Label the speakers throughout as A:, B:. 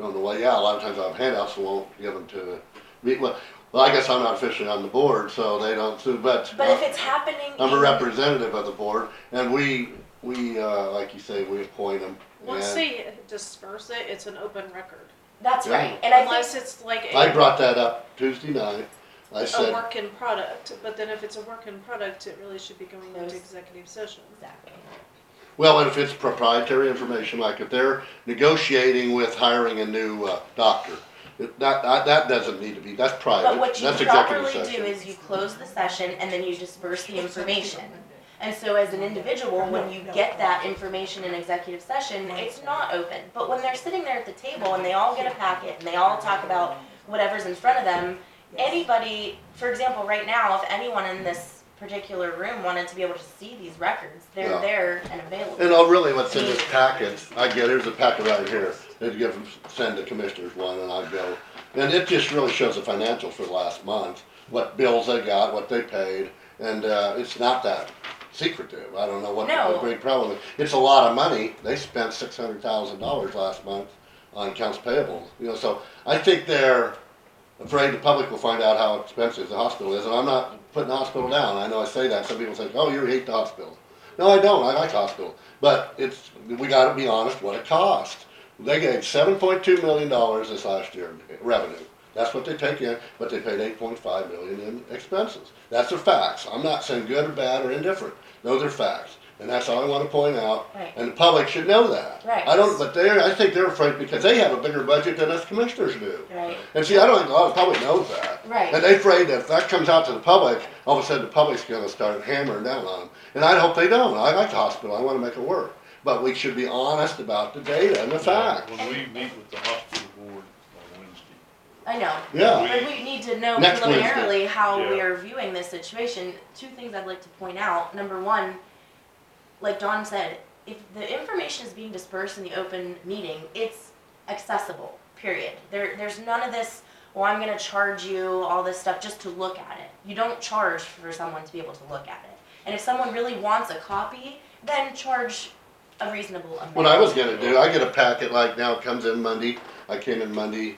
A: on the way out, a lot of times I'll have handouts and won't give them to the, me- well, well, I guess I'm not officially on the board, so they don't, sue, but.
B: But if it's happening.
A: I'm a
B: in-
A: representative of the board, and we, we, uh, like you say, we appoint them.
C: Once they disperse it, it's an open record.
B: That's
A: Yeah.
B: right, and I think,
C: Unless it's like
A: I
C: a,
A: brought that up Tuesday night, I
C: a
A: said,
C: work in product, but then if it's a work in product, it really should be going into
B: Close.
C: executive session.
B: exactly,
A: well, and if it's proprietary information, like if they're negotiating with hiring a new, uh, doctor, it- that, that, that doesn't need to be, that's
B: but
A: private,
B: what you
A: that's executive
B: properly do
A: session.
B: is you close the session and then you disperse the information. And so as an individual, when you get that information in executive session, it's not open, but when they're sitting there at the table and they all get a packet and they all talk about whatever's in front of them, anybody, for example, right now, if anyone in this particular room wanted to be able to see these records,
A: Yeah.
B: they're there and available.
A: And oh, really, what's in this packet, I get, here's a packet right here, they give, them- send the commissioners one, and I go, and it just really shows the financials for the last month, what bills they got, what they paid, and, uh, it's not that secretive, I don't know what the
B: No.
A: big problem is. It's a lot of money, they spent six hundred thousand dollars last month on accounts payable, you know, so I think they're afraid the public will find out how expensive the hospital is, and I'm not putting the hospital down, I know I say that, some people think, oh, you hate the hospital. No, I don't. I like hospital, but it's we got to be honest. What it cost? They gave seven point two million dollars this last year in revenue. That's what they take in, but they paid eight point five million in expenses. That's the facts. I'm not saying good or bad or indifferent. Those are facts, and that's all I want to point out.
B: Right.
A: And the public should know that.
B: Right.
A: I don't, but they are I think they're afraid because they have a bigger budget than us commissioners do.
B: Right.
A: And see, I don't think a lot of the public knows that.
B: Right.
A: And they're afraid that if that comes out to the public, all of a sudden the public's gonna start hammering down on them. And I hope they don't. I like the hospital. I wanna make it work. But we should be honest about the data and the facts.
D: When we meet with the hospital board on Wednesday,
B: I know.
A: Yeah.
B: But we need to know
A: Next Wednesday.
B: preliminarily how we
D: Yeah.
B: are viewing this situation. Two things I'd like to point out. Number one, like Dawn said, if the information is being dispersed in the open meeting, it's accessible, period. There, there's none of this, well, I'm gonna charge you all this stuff just to look at it. You don't charge for someone to be able to look at it. And if someone really wants a copy, then charge a reasonable amount.
A: What I was gonna do, I get a packet like now, it comes in Monday. I came in Monday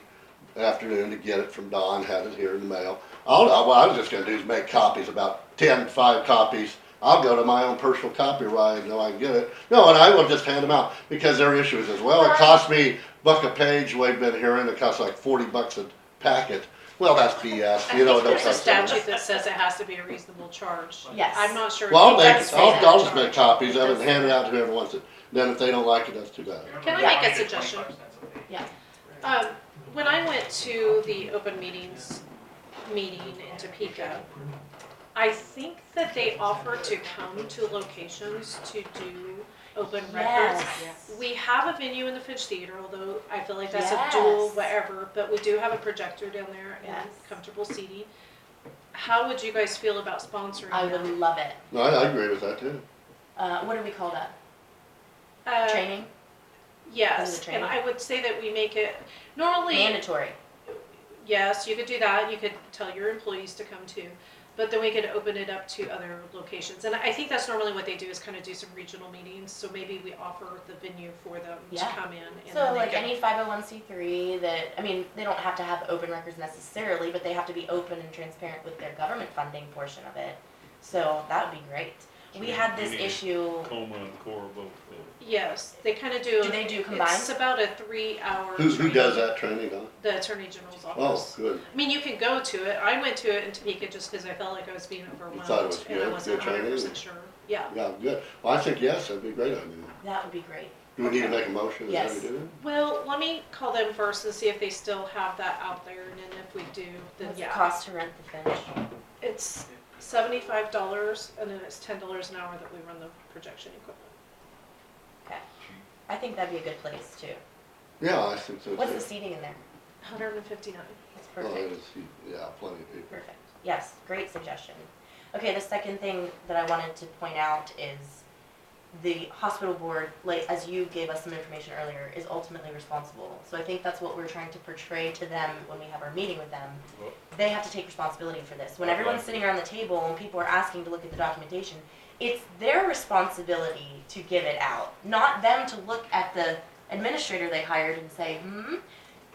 A: afternoon to get it from Don, had it here in the mail. All, I- what I was just gonna do is make copies, about ten, five copies. I'll go to my own personal copyright, know I can get it. No, and I will just hand them out, because their issue is, as well, it cost me buck a page, we've been hearing, it costs like forty bucks a packet. Well, that's BS, you know, it don't
C: There's a
A: cost. that much.
C: statute that says it has to be a reasonable charge.
B: Yes.
C: I'm not sure.
A: Well, I'll
B: It
A: make,
B: does say
A: I'll,
B: that.
A: I'll just make copies of it and hand it out to whoever wants it. Then if they don't like it, that's too bad.
C: Can
B: I
C: make a suggestion?
B: Yeah.
C: Um, when I went to the open meetings meeting in Topeka, I think that they offer to come to locations to do open records.
B: Yes.
C: We have a venue in the Finch Theater, although I feel like that's a dual
B: Yes.
C: whatever, but we do have a projector down there and
B: Yes.
C: comfortable seating. How would you guys feel about
B: I
C: sponsoring
B: would
C: them?
B: love it.
A: No, I, I agree with that too.
B: Uh, what do we call that?
C: Uh,
B: Training?
C: Yes,
B: training.
C: and I would say that we make it, normally,
B: Mandatory.
C: Yes, you could do that. You could tell your employees to come too. But then we could open it up to other locations. And I think that's normally what they do is kind of do some regional meetings. So maybe we offer the venue for them
B: Yeah.
C: to come in. And
B: So
C: then they
B: like
C: can-
B: any five oh one C three that, I mean, they don't have to have open records necessarily, but they have to be open and transparent with their government funding portion of it. So that would be great. We had this issue,
D: Coma and Cora both. uh,
C: Yes, they kind of do.
B: Do they do
C: It's
B: combined?
C: about a three hour.
A: Who, who does that training, Don?
C: The Attorney General's
A: Oh,
C: office.
A: good.
C: I mean, you can go to it. I went to it in Topeka just because I felt like I was being overwhelmed.
A: thought it was
C: And I
A: good,
C: wasn't
A: good training?
C: 100% sure. Yeah.
A: Yeah, good. Well, I think yes, that'd be a great idea.
B: that would be great.
A: Do we need to make a motion? Is that what we do?
C: Well, let me call them first and see if they still have that out there. And then if we do, then
B: What's it
C: yeah.
B: cost to rent the bench?
C: It's seventy-five dollars and then it's ten dollars an hour that we run the projection equipment.
B: I think that'd be a good place too.
A: Yeah, I think so
B: What's the
A: too.
B: seating in there?
C: Hundred and fifty-nine.
B: It's
A: Oh,
B: perfect.
A: it's- Yeah, plenty of people.
B: Perfect. Yes, great suggestion. Okay, the second thing that I wanted to point out is the hospital board, like, as you gave us some information earlier, is ultimately responsible. So I think that's what we're trying to portray to them when we have our meeting with them.
D: Well-
B: They have to take responsibility for this. When everyone's sitting around the table and people are asking to look at the documentation, it's their responsibility to give it out, not them to look at the administrator they hired and say, hmm,